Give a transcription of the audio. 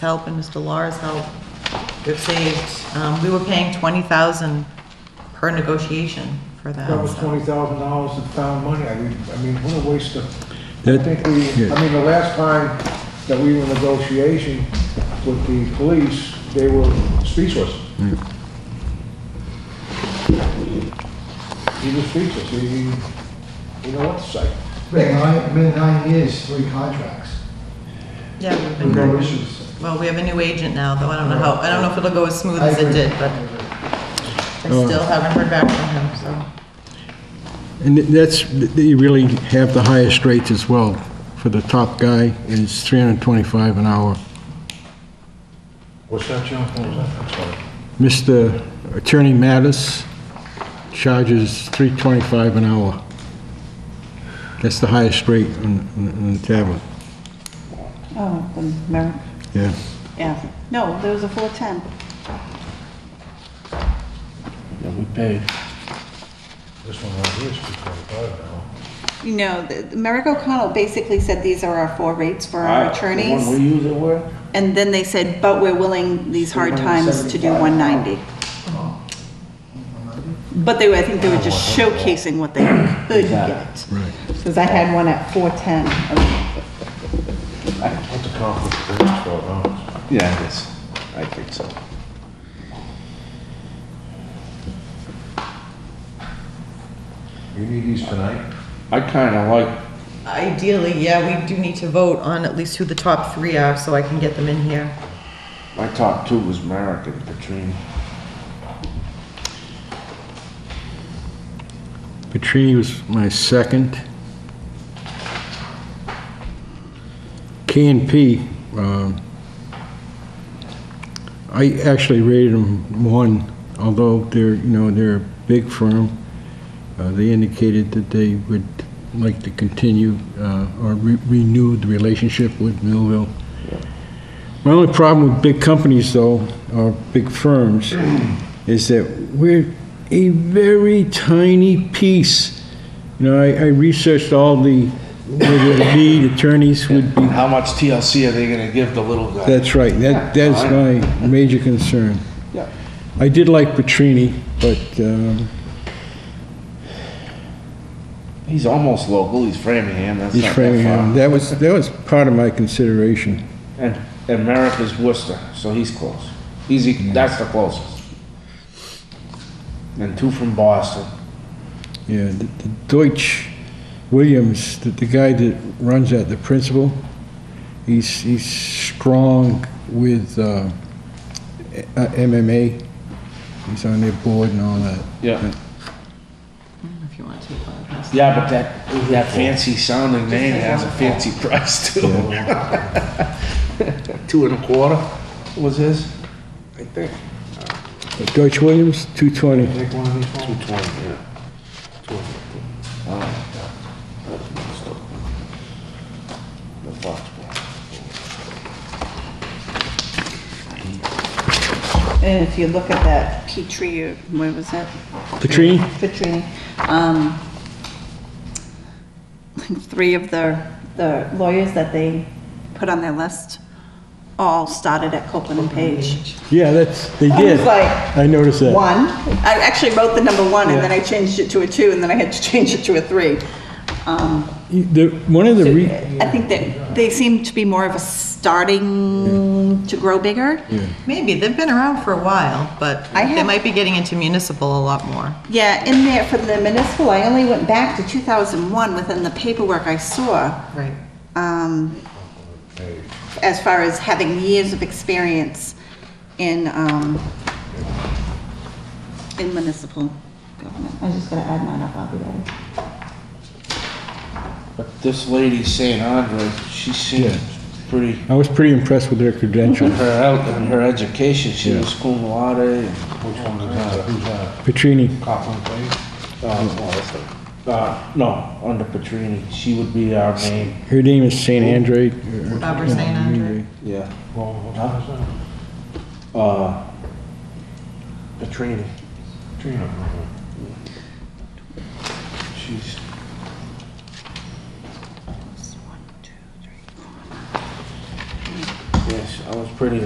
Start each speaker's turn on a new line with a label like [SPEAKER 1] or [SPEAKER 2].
[SPEAKER 1] help and Mr. Laura's help, we've saved, um, we were paying twenty thousand per negotiation for that.
[SPEAKER 2] That was
[SPEAKER 1] so.
[SPEAKER 2] twenty thousand dollars in town money, I mean, I mean, what a waste of, I
[SPEAKER 3] That-
[SPEAKER 2] think we,
[SPEAKER 3] yeah.
[SPEAKER 2] I mean, the last time that we were in negotiation with the police, they were speechless. He was speechless, he, he, you know what to say.
[SPEAKER 4] Been nine, been nine years, three contracts,
[SPEAKER 1] Yeah, we've been,
[SPEAKER 4] no issues.
[SPEAKER 1] well, we have a new agent now, though, I don't know how, I don't know if it'll go as smooth as it did, but I still haven't heard back from him, so.
[SPEAKER 3] And that's, they really have the highest rates as well. For the top guy is 325 an hour.
[SPEAKER 2] What's that, John? What was that? I'm sorry.
[SPEAKER 3] Mr. Attorney Mattis charges 325 an hour. That's the highest rate on, on- on the tablet,
[SPEAKER 5] Oh, the Merrick,
[SPEAKER 3] yeah.
[SPEAKER 5] yeah. No, there was a 410.
[SPEAKER 6] that we paid.
[SPEAKER 2] This one right here is two twenty-five now.
[SPEAKER 5] You know, the- the Merrick O'Connell basically said these are our four rates for our
[SPEAKER 6] Ah, The one
[SPEAKER 5] attorneys.
[SPEAKER 6] we use it with?
[SPEAKER 5] And then they said, but we're willing these hard times to do 190. But they were, I think they were just
[SPEAKER 6] Oh,
[SPEAKER 5] showcasing what they could get.
[SPEAKER 3] Right.
[SPEAKER 5] Because I had one at 410.
[SPEAKER 2] What's the conflict of interest for, huh?
[SPEAKER 6] Yeah, it is. I think so.
[SPEAKER 2] You need these tonight?
[SPEAKER 6] I kinda like
[SPEAKER 1] Ideally, yeah, we do need to vote on at least who the top three are, so I can get them in here.
[SPEAKER 6] My top two was Merrick and Katrina.
[SPEAKER 3] Petrini was my second. K and P, um, I actually rated them one, although they're, you know, they're a big firm. Uh, They indicated that they would like to continue uh, or re- renew the relationship with Millville. My only problem with big companies, though, or big firms, is that we're a very tiny piece. You know, I, I researched all the, whether the lead attorneys would be,
[SPEAKER 6] How much TLC are they gonna give the little guy?
[SPEAKER 3] that's right, that, that's my major concern.
[SPEAKER 6] Yeah.
[SPEAKER 3] I did like Petrini, but, um,
[SPEAKER 6] He's almost local, he's Framingham, that's
[SPEAKER 3] he's
[SPEAKER 6] not that
[SPEAKER 3] Framingham,
[SPEAKER 6] far.
[SPEAKER 3] that was, that was part of my consideration.
[SPEAKER 6] And, and Merrick is Worcester, so he's close. He's, e- that's the closest. And two from Boston.
[SPEAKER 3] Yeah, the the Deutsch Williams, the, the guy that runs that, the principal, he's, he's strong with, uh, eh, uh, MMA. He's on their board and all that.
[SPEAKER 6] Yeah.
[SPEAKER 1] If you want to.
[SPEAKER 6] Yeah, but that, that fancy sounding name has a fancy price too. Two and a quarter was his? I think.
[SPEAKER 3] But Deutsch Williams, two twenty.
[SPEAKER 2] Take one of these home.
[SPEAKER 6] Two twenty, yeah. The Foxborough.
[SPEAKER 5] And if you look at that Petrie, or where was that?
[SPEAKER 3] Petrini?
[SPEAKER 5] Petrini, um, like three of the, the lawyers that they put on their list all started at Copeland and Page.
[SPEAKER 3] Yeah, that's, they
[SPEAKER 5] I
[SPEAKER 3] did.
[SPEAKER 5] was like,
[SPEAKER 3] I noticed that.
[SPEAKER 5] One, I actually wrote the number one and then I changed it to a two and then I had to change it to a three. Um,
[SPEAKER 3] You- The, one of the
[SPEAKER 5] so
[SPEAKER 3] re,
[SPEAKER 5] I think that they seem to be more of a starting to grow bigger.
[SPEAKER 3] yeah,
[SPEAKER 1] Maybe, they've been around for a while, but
[SPEAKER 5] I
[SPEAKER 1] they
[SPEAKER 5] have-
[SPEAKER 1] might be getting into municipal a lot more.
[SPEAKER 5] Yeah, in there for the municipal, I only went back to 2001 within the paperwork I saw.
[SPEAKER 1] Right.
[SPEAKER 5] um, as far as having years of experience in, um, in municipal government. I was just gonna add mine up, I'll be ready.
[SPEAKER 6] But this lady, St. Andre, she
[SPEAKER 3] Yeah.
[SPEAKER 6] seems pretty,
[SPEAKER 3] I was pretty impressed with their credentials.
[SPEAKER 6] her out and her education, she was cum laude and
[SPEAKER 2] Which one is that? Who's that?
[SPEAKER 3] Petrini.
[SPEAKER 2] Coughlin, please?
[SPEAKER 6] Uh, no, that's not- Uh, no, under Petrini, she would be our main,
[SPEAKER 3] Her name is Saint Andre.
[SPEAKER 1] Barbara St. Andre.
[SPEAKER 6] yeah.
[SPEAKER 2] Well, what time is that?
[SPEAKER 6] Uh, Petrini,
[SPEAKER 2] Trina.
[SPEAKER 6] she's,
[SPEAKER 5] One, two, three.
[SPEAKER 6] yes, I was pretty